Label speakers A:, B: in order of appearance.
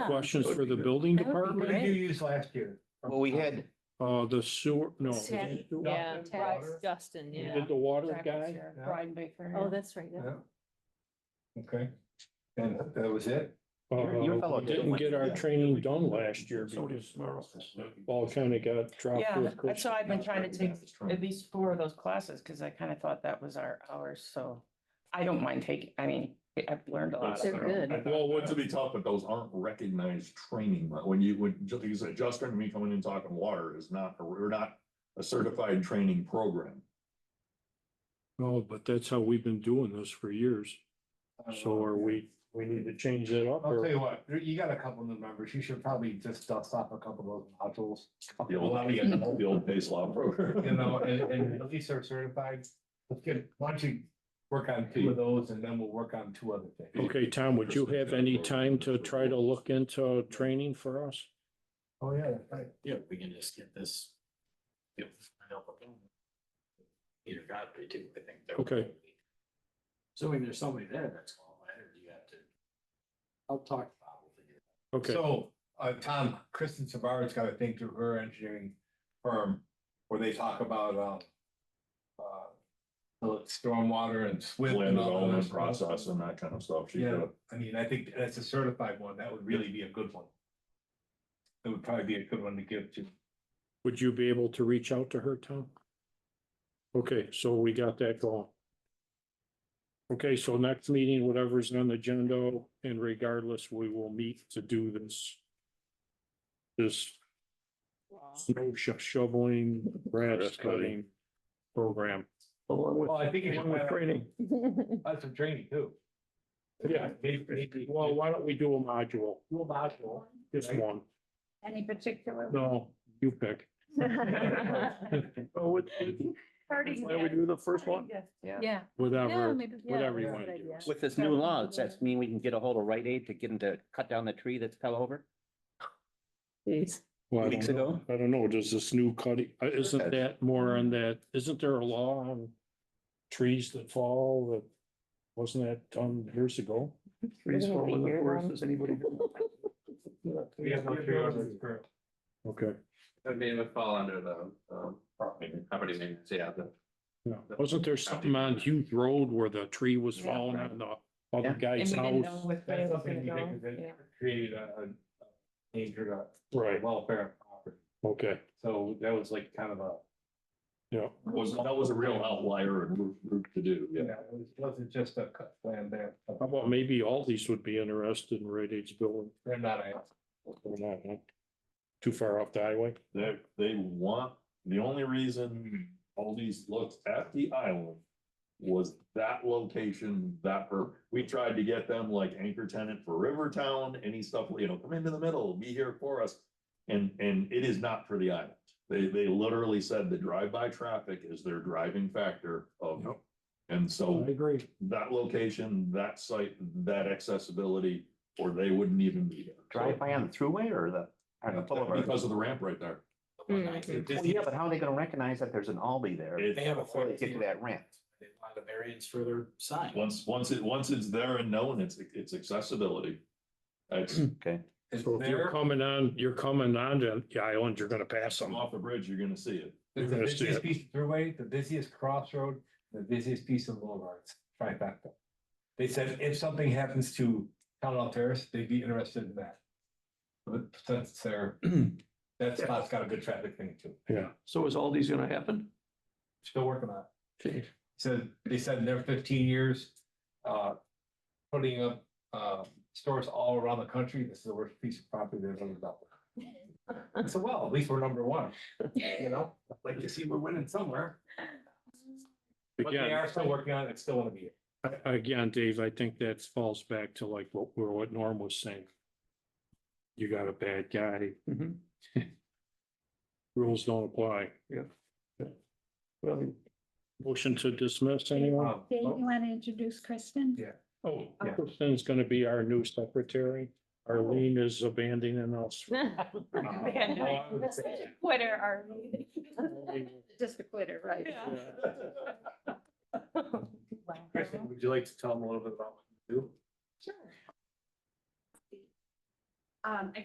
A: Questions for the building
B: That would be
C: What did
A: department?
B: great.
C: you use last year?
D: Well, we had,
A: Uh, the sewer, no. we
B: Tech.
A: didn't do-
E: Yeah,
C: Water?
E: Bryce, Justin,
A: we
E: yeah.
A: Did the water guy?
C: Yeah.
E: Brian Baker.
B: Oh, that's right.
C: Yeah. Okay. And that was it?
D: Your- your fellow
A: Uh, we
D: did
A: didn't
D: one.
A: get our
C: Yeah.
A: training done last year
D: So did
A: because
D: Merle.
A: all kind of got dropped.
E: Yeah,
A: with Christmas.
E: that's how I've been trying to take at least four of those classes, because I kind of thought that was our hours, so I don't mind taking, I mean, I've learned a lot.
B: They're good.
F: Well, what to be tough, but those aren't recognized training, but when you, when, just, you said, Justin, and me coming in talking water is not, we're not a certified training program.
A: No, but that's how we've been doing this for years. So are we, we need to change that up
C: I'll tell
A: or
C: you what, you- you got a couple new members. You should probably just dust off a couple of those modules.
F: The old, the old base law program.
C: You know, and, and at least they're certified. Let's get, why don't you work on two of those and then we'll work on two other things.
A: okay, Tom, would you have any time to try to look into training for us?
C: Oh, yeah, that's right.
G: Yeah, we can just get this. Get help with them. Peter Godfrey too, I think. that would
A: Okay.
G: be- So if there's somebody there that's qualified, or do you have to? I'll talk to Bob. we'll figure it out.
A: Okay,
C: So, uh, Tom, Kristen Savard's got a thing through her engineering firm where they talk about, um, uh, stormwater and SWIP.
F: Land
C: and all that
F: development
C: stuff.
F: process and that kind of stuff. She
C: uh, Yeah,
F: did.
C: I mean, I think that's a certified one. That would really be a good one. It would probably be a good one to give to.
A: would you be able to reach out to her, Tom? Okay, so we got that going. Okay, so next meeting, whatever's on the agenda, and regardless, we will meet to do this. This snow sho- shoveling, grass
F: Grass
A: cutting
F: cutting.
A: program.
C: Well, I think.
A: Training.
C: That's some training too.
A: Yeah,
C: Maybe, maybe.
A: well, why don't we do a module,
C: Dual module.
A: just one?
B: Any particular?
A: No, you pick. Oh, do the first
B: Yeah. Yeah,
A: Whatever,
B: maybe- yeah,
A: whatever you
C: that's
A: want
B: a
A: to
B: good
A: do.
B: idea.
D: with this new law, does that mean we can get a hold of Rite Aid to get them to cut down the tree that's fell over?
A: Well, I
D: Weeks
A: don't know.
D: ago?
A: I don't know, does this new cutting, uh, isn't
D: Okay.
A: that more on that, isn't there a law on trees that fall that wasn't that done years ago?
E: Trees fall in the forest,
G: does anybody?
C: We have no tree ordinance current.
A: Okay,
H: I mean, it would fall under the, um, property maintenance, yeah, the
A: yeah, wasn't there something on Hughes Road where the tree was falling on the other
D: Yeah.
E: And we
A: guy's
E: didn't
A: house?
E: know which way
C: That's
E: it was
C: something
E: gonna
C: you
E: go.
C: think that
E: Yeah.
C: created a, a danger to
A: Right,
C: welfare of property.
A: okay,
C: So that was like kind of a.
A: yeah,
F: Was, that was a real outlier and group- group to do, yeah.
C: Yeah, it was- wasn't just a cut plan there.
A: how about maybe all these would be interested in Red Aid's building,
C: They're not, a-
A: or not, huh? Too far off the highway?
F: They, they want, the only reason
G: Hmm.
F: all these looks at the island was that location, that, per- we tried to get them like anchor tenant for Rivertown, any stuff, you know, come into the middle, be here for us. And, and it is not for the island. They, they literally said the drive-by traffic is their driving factor of.
A: Yep.
F: And so
A: agree.
F: that location, that site, that accessibility, or they wouldn't even be there.
D: Drive by on the thruway or the, on the boulevard?
F: Because of the ramp right there.
D: Well, Yeah, but how are they gonna recognize that there's an Aldi there?
F: It-
G: They have a.
D: Before they get to that ramp.
G: They want a variance for their sign.
F: Once, once it, once it's there and known, it's, it's accessibility. It's
D: Okay.
C: is
A: So if you're
C: there,
A: coming on, you're coming on to the island, you're gonna pass
F: come
A: them.
F: off the bridge, you're gonna see it.
C: is the
A: You're gonna see
C: busiest
A: it.
C: piece of throughway, the busiest crossroad, the busiest piece of boulevards, trifecta. They said if something happens to Commonwealth Terrace, they'd be interested in that. But since they're, that spot's got a good traffic thing too.
I: So is Aldi's gonna happen?
C: Still working on it.
I: Okay.
C: So they said in their fifteen years, uh, putting up, uh, stores all around the country, this is the worst piece of property they've ever developed. So well, at least we're number one, you know, like you see, we're winning somewhere, but they
A: Again,
C: are still working on it, it's still wanna be.
A: I- Again, Dave, I think that falls back to like what, we're- what Norm was saying. You got a bad guy.
I: Mhm.
A: Rules don't apply.
I: Well,
A: Motion to dismiss anyone?
C: Um,
B: Dave, you
C: oh,
B: want to introduce Kristen?
C: Yeah.
A: Oh,
C: yeah.
A: Kristen's gonna be our new secretary. Arlene is abandoning us.
C: uh,
B: Quitter, are Just a quitter, right?
C: Kristen, would you like to tell them a little bit about what you do?
B: Sure. Um, I